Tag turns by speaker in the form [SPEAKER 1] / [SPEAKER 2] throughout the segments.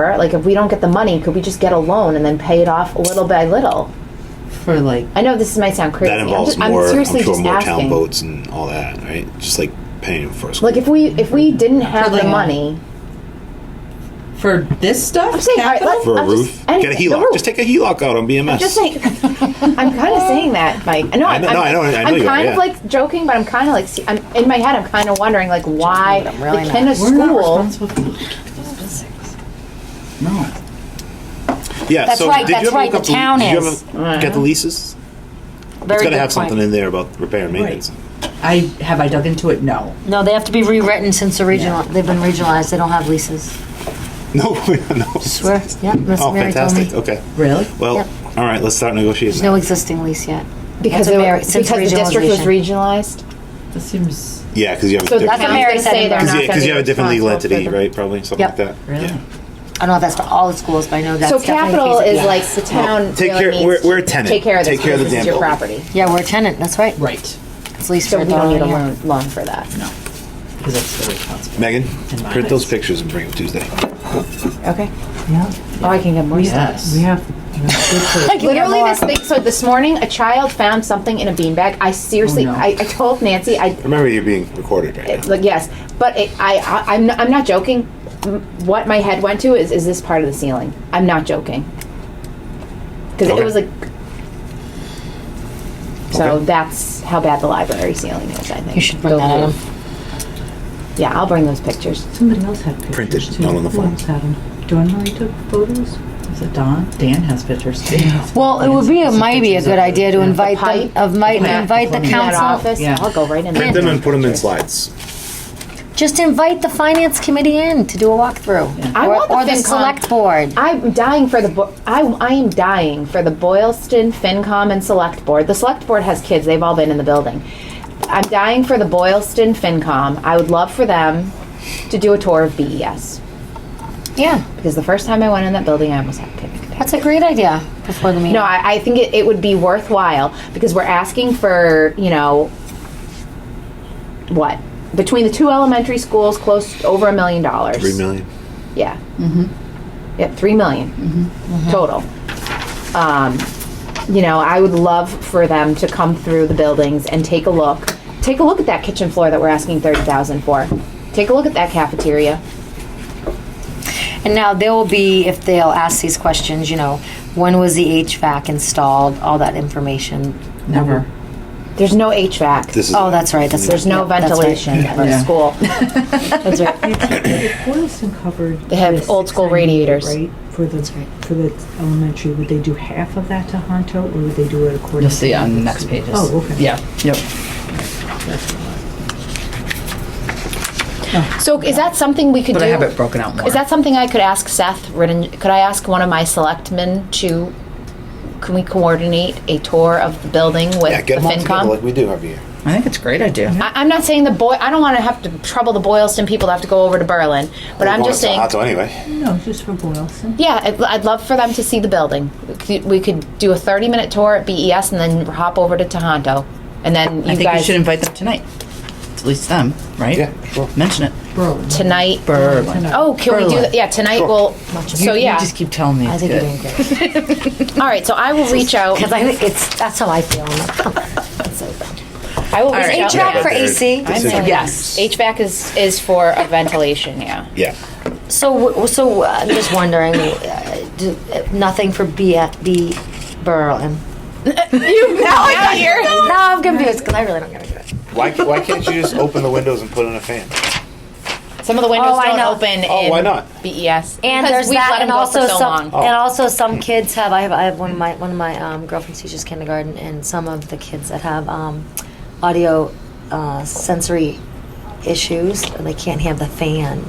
[SPEAKER 1] Like, if we don't get the money, could we just get a loan and then pay it off little by little?
[SPEAKER 2] for like
[SPEAKER 1] I know this might sound crazy.
[SPEAKER 3] That
[SPEAKER 1] I'm
[SPEAKER 3] involves
[SPEAKER 1] ju- I'm
[SPEAKER 3] more, I'm
[SPEAKER 1] seriously
[SPEAKER 3] sure,
[SPEAKER 1] just
[SPEAKER 3] more
[SPEAKER 1] asking.
[SPEAKER 3] town votes and all that, right? Just like paying them for a school.
[SPEAKER 1] Like, if we if we didn't have the
[SPEAKER 2] like a-
[SPEAKER 1] money,
[SPEAKER 2] for this stuff.
[SPEAKER 1] I'm saying, all right,
[SPEAKER 2] capital?
[SPEAKER 1] let's-
[SPEAKER 3] for a
[SPEAKER 1] I'm just-
[SPEAKER 3] roof, get a
[SPEAKER 1] anything- the
[SPEAKER 3] HELOC.
[SPEAKER 1] roof.
[SPEAKER 3] Just take a HELOC out on BMS.
[SPEAKER 1] Just saying, I'm kind of saying that, Mike. No,
[SPEAKER 3] I know-
[SPEAKER 1] I'm,
[SPEAKER 3] no, I know- I know
[SPEAKER 1] am
[SPEAKER 3] you are,
[SPEAKER 1] kind
[SPEAKER 3] yeah.
[SPEAKER 1] of like joking, but I'm kind of like, see, I'm in my head. I'm kind of wondering, like, why
[SPEAKER 4] I'm really
[SPEAKER 1] the Kenna
[SPEAKER 4] not.
[SPEAKER 2] We're not
[SPEAKER 1] school?
[SPEAKER 2] responsible for-
[SPEAKER 5] No.
[SPEAKER 3] yeah,
[SPEAKER 4] That's
[SPEAKER 3] so
[SPEAKER 4] right,
[SPEAKER 3] did
[SPEAKER 4] that's
[SPEAKER 3] you ever
[SPEAKER 4] right,
[SPEAKER 3] look up
[SPEAKER 4] the town
[SPEAKER 3] did
[SPEAKER 4] is.
[SPEAKER 3] You ever get the leases?
[SPEAKER 4] Very
[SPEAKER 3] it's got to
[SPEAKER 4] good
[SPEAKER 3] have
[SPEAKER 4] point.
[SPEAKER 3] something in there about repair and maintenance.
[SPEAKER 2] Right. I have I dug into it? No.
[SPEAKER 4] No, they have to be rewritten since the regional. They've been regionalized. They don't have leases.
[SPEAKER 3] No, no.
[SPEAKER 4] Swear. Yeah, Miss
[SPEAKER 3] Oh,
[SPEAKER 4] Mary told me.
[SPEAKER 3] fantastic. Oh, Okay.
[SPEAKER 2] Really?
[SPEAKER 3] Well,
[SPEAKER 4] Yep.
[SPEAKER 3] all right, let's start negotiating.
[SPEAKER 4] No
[SPEAKER 3] now.
[SPEAKER 4] existing lease yet.
[SPEAKER 1] Because
[SPEAKER 4] That's
[SPEAKER 1] they
[SPEAKER 4] what
[SPEAKER 1] were-
[SPEAKER 4] Mary-
[SPEAKER 1] because
[SPEAKER 4] since
[SPEAKER 1] the district was regionalized.
[SPEAKER 2] That seems
[SPEAKER 3] yeah, because you have
[SPEAKER 1] So
[SPEAKER 3] a different,
[SPEAKER 1] that's
[SPEAKER 4] what
[SPEAKER 1] what
[SPEAKER 4] Mary
[SPEAKER 1] Mary say
[SPEAKER 4] said
[SPEAKER 1] they're not
[SPEAKER 4] about-
[SPEAKER 3] cause, yeah, 'cause
[SPEAKER 1] gonna
[SPEAKER 3] you have a
[SPEAKER 1] be
[SPEAKER 3] different legal
[SPEAKER 1] responsible for
[SPEAKER 3] entity,
[SPEAKER 1] them.
[SPEAKER 3] right? Probably something
[SPEAKER 4] Yep.
[SPEAKER 3] like that.
[SPEAKER 2] really.
[SPEAKER 3] Yeah.
[SPEAKER 4] I don't know if that's for all the schools, but I know that's
[SPEAKER 1] So
[SPEAKER 4] definitely
[SPEAKER 1] capital
[SPEAKER 4] feasible.
[SPEAKER 1] is like the town.
[SPEAKER 3] take
[SPEAKER 1] really
[SPEAKER 3] care-
[SPEAKER 1] needs
[SPEAKER 3] we're-
[SPEAKER 1] to
[SPEAKER 3] we're a tenant.
[SPEAKER 1] Take care of this.
[SPEAKER 3] Take care of the
[SPEAKER 1] because this is
[SPEAKER 3] damn
[SPEAKER 1] your
[SPEAKER 3] building.
[SPEAKER 1] property.
[SPEAKER 4] Yeah, we're a tenant. That's right.
[SPEAKER 2] right
[SPEAKER 4] It's leased
[SPEAKER 1] So
[SPEAKER 4] for
[SPEAKER 1] we don't need a
[SPEAKER 4] yeah.
[SPEAKER 1] loan, loan for that.
[SPEAKER 2] because that's the responsible.
[SPEAKER 3] Megan,
[SPEAKER 2] my
[SPEAKER 3] print those pictures and bring them Tuesday.
[SPEAKER 1] Okay.
[SPEAKER 2] Yeah.
[SPEAKER 1] Oh, I can get more stuff.
[SPEAKER 2] Yes. We have.
[SPEAKER 1] Like literally this thing. So this morning, a child found something in a beanbag. I seriously,
[SPEAKER 2] Oh, no.
[SPEAKER 1] I, I told Nancy, I
[SPEAKER 3] Remember, you're being recorded right
[SPEAKER 1] It's
[SPEAKER 3] now.
[SPEAKER 1] like yes, but it, I, I I'm not, I'm not joking. M- What my head went to is is this part of the ceiling? I'm not joking because
[SPEAKER 3] Okay.
[SPEAKER 1] it was like. So
[SPEAKER 3] Okay.
[SPEAKER 1] that's how bad the library ceiling is. I think
[SPEAKER 4] You should bring that item.
[SPEAKER 1] Yeah, I'll bring those pictures.
[SPEAKER 2] Somebody else had pictures
[SPEAKER 3] Printed,
[SPEAKER 2] too.
[SPEAKER 3] not on the
[SPEAKER 2] Who
[SPEAKER 3] phone.
[SPEAKER 2] else had 'em? Dawn really took photos. Is it Dawn? Dan has pictures too.
[SPEAKER 4] Well, it would be a, might be a good idea to invite
[SPEAKER 1] pipe,
[SPEAKER 4] the, of might
[SPEAKER 2] the
[SPEAKER 4] invite the
[SPEAKER 2] plumbing.
[SPEAKER 1] That
[SPEAKER 4] council.
[SPEAKER 1] office,
[SPEAKER 2] Yeah.
[SPEAKER 1] I'll go right in
[SPEAKER 3] Print
[SPEAKER 1] there.
[SPEAKER 3] them and put them in slides.
[SPEAKER 4] Just invite the finance committee in to do a walkthrough,
[SPEAKER 1] I
[SPEAKER 4] or,
[SPEAKER 1] want the
[SPEAKER 4] or the
[SPEAKER 1] FinCom.
[SPEAKER 4] select board.
[SPEAKER 1] I'm dying for the bo- I I am dying for the Boylston FinCom and Select Board. The Select Board has kids; they've all been in the building. I'm dying for the Boylston FinCom. I would love for them to do a tour of BES
[SPEAKER 4] Yeah,
[SPEAKER 1] because the first time I went in that building, I almost had a panic attack.
[SPEAKER 4] that's a great idea before the meeting.
[SPEAKER 1] No, I, I think it, it would be worthwhile because we're asking for you know what between the two elementary schools, close to over a million dollars.
[SPEAKER 3] Three million.
[SPEAKER 1] Yeah. Mm-hmm. Yep, three million
[SPEAKER 2] Mm-hmm.
[SPEAKER 1] total. Um, you know, I would love for them to come through the buildings and take a look. Take a look at that kitchen floor that we're asking thirty thousand for. Take a look at that cafeteria.
[SPEAKER 4] And now there will be, if they'll ask these questions, you know, when was the HVAC installed, all that information.
[SPEAKER 2] Never.
[SPEAKER 1] There's no HVAC.
[SPEAKER 3] This is
[SPEAKER 4] Oh, that's right, that's.
[SPEAKER 1] There's no
[SPEAKER 4] yeah, that's right.
[SPEAKER 1] ventilation in the
[SPEAKER 2] Yeah.
[SPEAKER 1] school.
[SPEAKER 4] That's right.
[SPEAKER 6] Boylston covered.
[SPEAKER 1] They have
[SPEAKER 6] this
[SPEAKER 1] old school
[SPEAKER 6] 698,
[SPEAKER 1] radiators.
[SPEAKER 6] Right, for the, for the elementary, would they do half of that to Honto, or would they do it according?
[SPEAKER 2] You'll
[SPEAKER 6] to-
[SPEAKER 2] see on the next pages.
[SPEAKER 6] Oh, okay.
[SPEAKER 2] Yeah. Yep.
[SPEAKER 1] So is that something we could
[SPEAKER 2] But
[SPEAKER 1] do?
[SPEAKER 2] I have it broken out more.
[SPEAKER 1] Is that something I could ask Seth Ridden? Could I ask one of my selectmen to? Can we coordinate a tour of the building with
[SPEAKER 3] Yeah, get
[SPEAKER 1] the
[SPEAKER 3] them all
[SPEAKER 1] FinCom?
[SPEAKER 3] together like we do every year.
[SPEAKER 2] I think it's a great idea.
[SPEAKER 1] I, I'm not saying the boy. I don't want to have to trouble the Boylston people to have to go over to Berlin, but I'm just saying.
[SPEAKER 3] Hot anyway.
[SPEAKER 6] No, just for Boylston.
[SPEAKER 1] Yeah, I'd, I'd love for them to see the building. We could, we could do a 30 minute tour at BES and then hop over to Tohoto, and then you
[SPEAKER 2] I think
[SPEAKER 1] guys
[SPEAKER 2] you should invite them tonight. At least them, right?
[SPEAKER 3] Yeah, sure.
[SPEAKER 2] Mention it.
[SPEAKER 1] tonight.
[SPEAKER 2] Berlin.
[SPEAKER 1] Oh, can we do
[SPEAKER 2] Berlin.
[SPEAKER 1] that? Yeah, tonight we'll. So yeah.
[SPEAKER 2] You just keep telling me.
[SPEAKER 4] I think you're doing great.
[SPEAKER 1] All right, so I will reach out.
[SPEAKER 4] Because I think it's, that's how I feel.
[SPEAKER 1] I will reach
[SPEAKER 2] right.
[SPEAKER 1] out.
[SPEAKER 4] HVAC
[SPEAKER 3] Yeah,
[SPEAKER 4] for
[SPEAKER 3] but they're-
[SPEAKER 4] AC.
[SPEAKER 3] they're
[SPEAKER 4] I'm
[SPEAKER 3] saying-
[SPEAKER 4] sorry.
[SPEAKER 2] Yes.
[SPEAKER 1] HVAC is is for a ventilation. Yeah.
[SPEAKER 3] Yeah.
[SPEAKER 4] So, w- so uh, I'm just wondering, uh, do- uh, nothing for B, B, Berlin.
[SPEAKER 1] You now I hear.
[SPEAKER 4] No, I'm confused because I really don't get it.
[SPEAKER 3] Why, ca- why can't you just open the windows and put in a fan?
[SPEAKER 1] Some of the windows
[SPEAKER 4] Oh, I
[SPEAKER 1] don't
[SPEAKER 4] know.
[SPEAKER 1] open.
[SPEAKER 3] Oh,
[SPEAKER 1] in
[SPEAKER 3] why not?
[SPEAKER 1] BES.
[SPEAKER 4] And
[SPEAKER 1] Because
[SPEAKER 4] there's
[SPEAKER 1] we've
[SPEAKER 4] that,
[SPEAKER 1] let 'em
[SPEAKER 4] and
[SPEAKER 1] go for
[SPEAKER 4] also
[SPEAKER 1] so
[SPEAKER 4] some,
[SPEAKER 1] long.
[SPEAKER 4] and also some kids have. I have, I have one of my one of my um, girlfriends teaches kindergarten, and some of the kids that have um, audio uh, sensory issues, and they can't have the fan.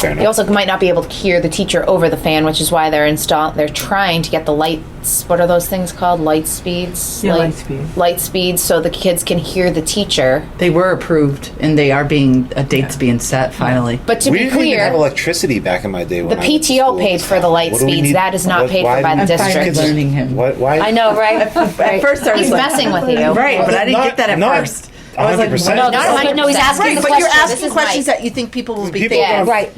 [SPEAKER 3] Fair
[SPEAKER 1] You
[SPEAKER 3] enough.
[SPEAKER 1] also might not be able to hear the teacher over the fan, which is why they're install. They're trying to get the lights. What are those things called? Light speeds.
[SPEAKER 6] Yeah,
[SPEAKER 1] Light-
[SPEAKER 6] light speed.
[SPEAKER 1] Light speeds, so the kids can hear the teacher.
[SPEAKER 2] They were approved, and they are being a date's being set finally.
[SPEAKER 1] But to
[SPEAKER 3] we
[SPEAKER 1] be
[SPEAKER 3] didn't even have
[SPEAKER 1] clear,
[SPEAKER 3] electricity back in my day.
[SPEAKER 1] the
[SPEAKER 3] When I went to
[SPEAKER 1] PTO
[SPEAKER 3] school.
[SPEAKER 1] paid for the light
[SPEAKER 3] What do we
[SPEAKER 1] speeds.
[SPEAKER 3] need-
[SPEAKER 1] That is not
[SPEAKER 3] what-
[SPEAKER 1] paid
[SPEAKER 3] why
[SPEAKER 1] for by the
[SPEAKER 3] do-
[SPEAKER 2] finally
[SPEAKER 1] district.
[SPEAKER 2] learning him.
[SPEAKER 3] Why? why
[SPEAKER 4] I know, right?
[SPEAKER 2] At first, I was
[SPEAKER 1] He's
[SPEAKER 2] like,
[SPEAKER 1] messing with you.
[SPEAKER 2] Right, but I didn't
[SPEAKER 3] Not-
[SPEAKER 2] get that at
[SPEAKER 3] not-
[SPEAKER 2] first.
[SPEAKER 7] I was like,
[SPEAKER 1] 100%.
[SPEAKER 7] no,
[SPEAKER 2] No,
[SPEAKER 3] no,
[SPEAKER 2] no,
[SPEAKER 3] no, he's asking
[SPEAKER 2] Right,
[SPEAKER 3] the
[SPEAKER 2] but you're
[SPEAKER 3] question.
[SPEAKER 2] asking questions that you think people will be
[SPEAKER 1] People
[SPEAKER 2] thinking.
[SPEAKER 1] don't-
[SPEAKER 3] Right.